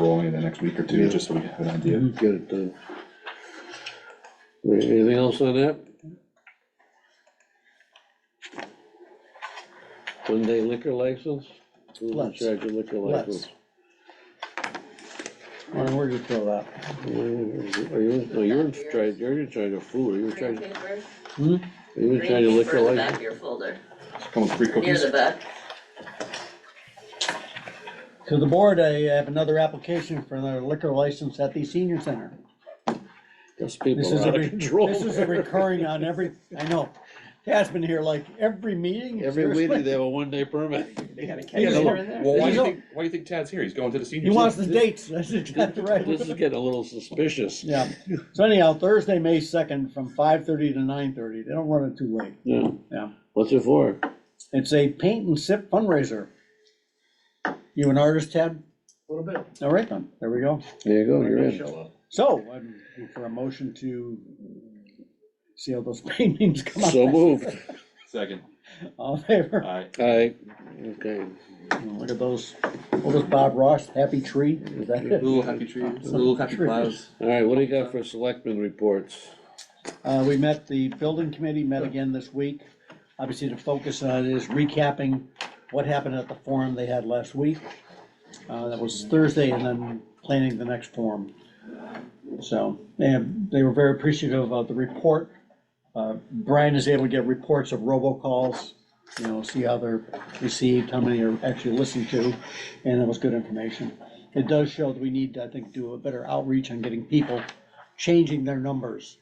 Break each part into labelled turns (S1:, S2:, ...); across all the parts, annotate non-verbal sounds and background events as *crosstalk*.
S1: rolling in the next week or two, just so we have an idea.
S2: Get it done. Right, Anything else on that? One day liquor license? Who's in
S3: Let's.
S2: charge of liquor license?
S3: Let's. Lauren, where'd you throw that?
S2: Are you, no, you're in charge, you're in charge of food, you're in
S4: Green
S2: charge,
S4: paper,
S2: you're in
S4: green
S2: charge of
S4: paper
S2: liquor
S4: in the back of
S2: license?
S4: your folder,
S1: Come with free
S4: near
S1: cookies.
S4: the back.
S3: To the board, I have another application for another liquor license at the senior center.
S2: Those
S3: This
S2: people
S3: is
S2: are
S3: a,
S2: out of
S3: re-
S2: control.
S3: this is a recurring on every, I know, Tad's been here like every meeting.
S2: *laughs* Every week they have a one-day permit.
S1: Yeah, no,
S3: He's-
S1: look, Well, why do you
S3: He's-
S1: think, why do you think Tad's here? He's going to the senior.
S3: He wants the
S1: center.
S3: dates, that's exactly
S2: This is
S3: right.
S2: getting a little suspicious.
S3: Yeah, so anyhow, Thursday, May second, from five thirty to nine thirty, they don't run it too late.
S2: Yeah.
S3: Yeah.
S2: What's it for?
S3: It's a paint and sip fundraiser. You an artist, Tad?
S5: A little bit.
S3: All right then, there we go.
S2: There you go,
S5: When
S2: you're
S5: they
S2: in.
S5: show up.
S3: So, I'm for a motion to see how those *laughs* paintings come out.
S2: So moved.
S1: Second,
S3: All in favor?
S1: aye.
S2: Aye, okay.
S3: Look at those, what was Bob Ross, Happy Tree? Is that it?
S1: Little happy trees, little happy
S3: Trees.
S1: clouds.
S2: All right, what do you got for selectmen reports?
S3: Uh, we met, the building committee met again this week. Obviously, the focus on it is recapping what happened at the forum they had last week. Uh, that was Thursday, and then planning the next forum. So, and they were very appreciative of the report. Uh, Brian is able to get reports of robocalls, you know, see how they're received, how many are actually listened to, and it was good information. It does show that we need, to, I think, do a better outreach on getting people changing their numbers.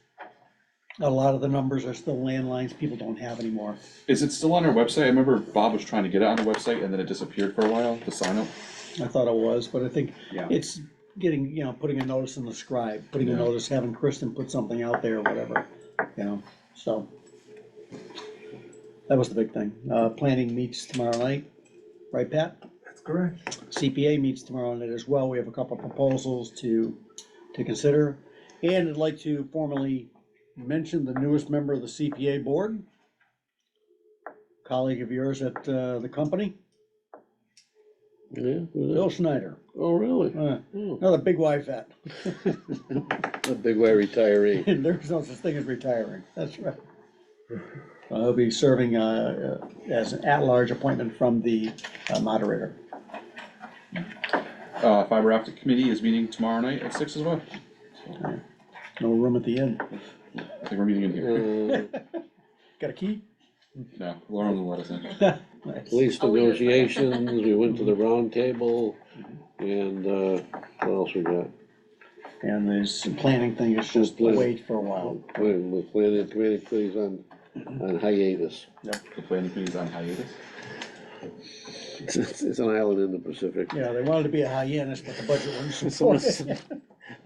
S3: A lot of the numbers are still landlines people don't have anymore.
S1: Is it still on our website? I remember Bob was trying to get it on the website and then it disappeared for a while, the sign up.
S3: I thought it was, but I think
S1: Yeah.
S3: it's getting, you know, putting a notice in the scribe, putting a
S1: Yeah.
S3: notice, having Kristen put something out there or whatever, you know, so. That was the big thing. Uh, planning meets tomorrow night, right, Pat?
S5: That's correct.
S3: CPA meets tomorrow night as well. We have a couple of proposals to, to consider. And I'd like to formally mention the newest member of the CPA board, colleague of yours at uh, the company,
S2: Yeah, who's that?
S3: Bill Schneider,
S2: oh, really?
S3: Uh,
S2: Oh,
S3: another big wife vet. *laughs*
S2: A big way retiree.
S3: There's no such thing as retiring, that's right. I'll be serving uh, uh, as an at-large appointment from the uh, moderator.
S1: Uh, fiber optic committee is meeting tomorrow night at six as well.
S3: No room at the end.
S1: I think we're meeting in here.
S2: Uh,
S3: Got a key?
S1: No, Lauren will let us in.
S3: Nice.
S2: Police
S4: Oh, we did.
S2: negotiations, we went to the round table, and, uh, what else we got?
S3: And this planning thing is just wait for a while.
S2: Plan- The planning committee, please, on, on hiatus.
S1: The planning committee's on hiatus.
S2: It's, it's it's an island in the Pacific.
S3: Yeah, they wanted to be a hyenas, but the budget wouldn't
S2: Someone
S3: support it.
S2: said-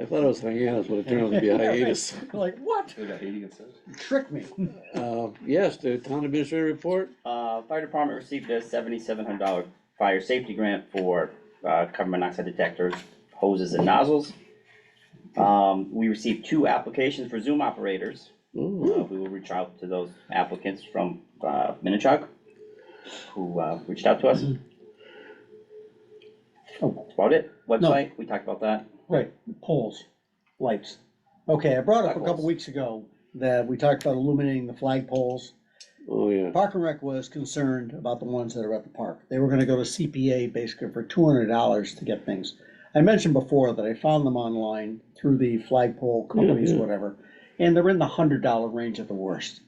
S2: I thought it was hiatus, but it turned out to be a hiatus.
S3: *laughs* Like, what?
S1: They got Haiti instead.
S3: Trick me.
S2: Uh, yes, the town administrator report?
S6: Uh, fire department received a seventy-seven hundred dollar fire safety grant for, uh, carbon monoxide detectors, hoses and nozzles. Um, we received two applications for Zoom operators. Uh,
S2: Ooh,
S6: we will reach out to those applicants from, uh, Minichog, who, uh, reached out to us.
S3: Oh.
S6: That's about it. Website, we talked about that.
S3: Right, poles, lights. Okay, I brought up a couple
S6: Flagpoles.
S3: weeks ago that we talked about illuminating the flag poles.
S2: Oh, yeah.
S3: Park and Rec was concerned about the ones that are at the park. They were gonna go to CPA basically for two hundred dollars to get things. I mentioned before that I found them online through the flagpole companies,
S2: yeah.
S3: whatever, and they're in the hundred dollar range at the worst.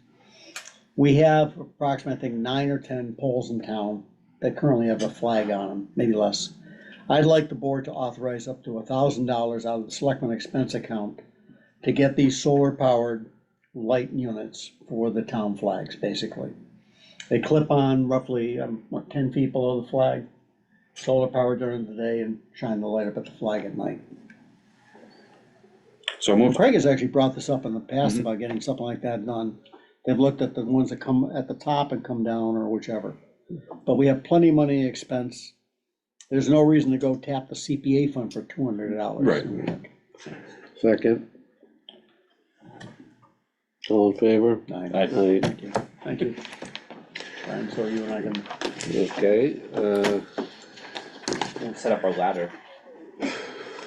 S3: We have approximately, I think, nine or ten poles in town that currently have a flag on them, maybe less. I'd like the board to authorize up to thousand dollars out of the selectman expense account to get these solar powered light units for the town flags, basically. They clip on roughly, um, what, ten feet below the flag, solar powered during the day and shine the light up at the flag at night.
S1: So moved.
S3: Craig has actually brought this up in the past about getting something like that done. They've looked at the ones that come at the top and come down or whichever. But we have plenty of money expense. There's no reason to go tap the CPA fund for two hundred dollars.
S1: Right.
S2: Second. All in favor?
S1: Aye.
S2: Aye.
S3: Thank you, thank you. Brian, so you and I can,
S2: Okay, uh,
S6: We'll set up our ladder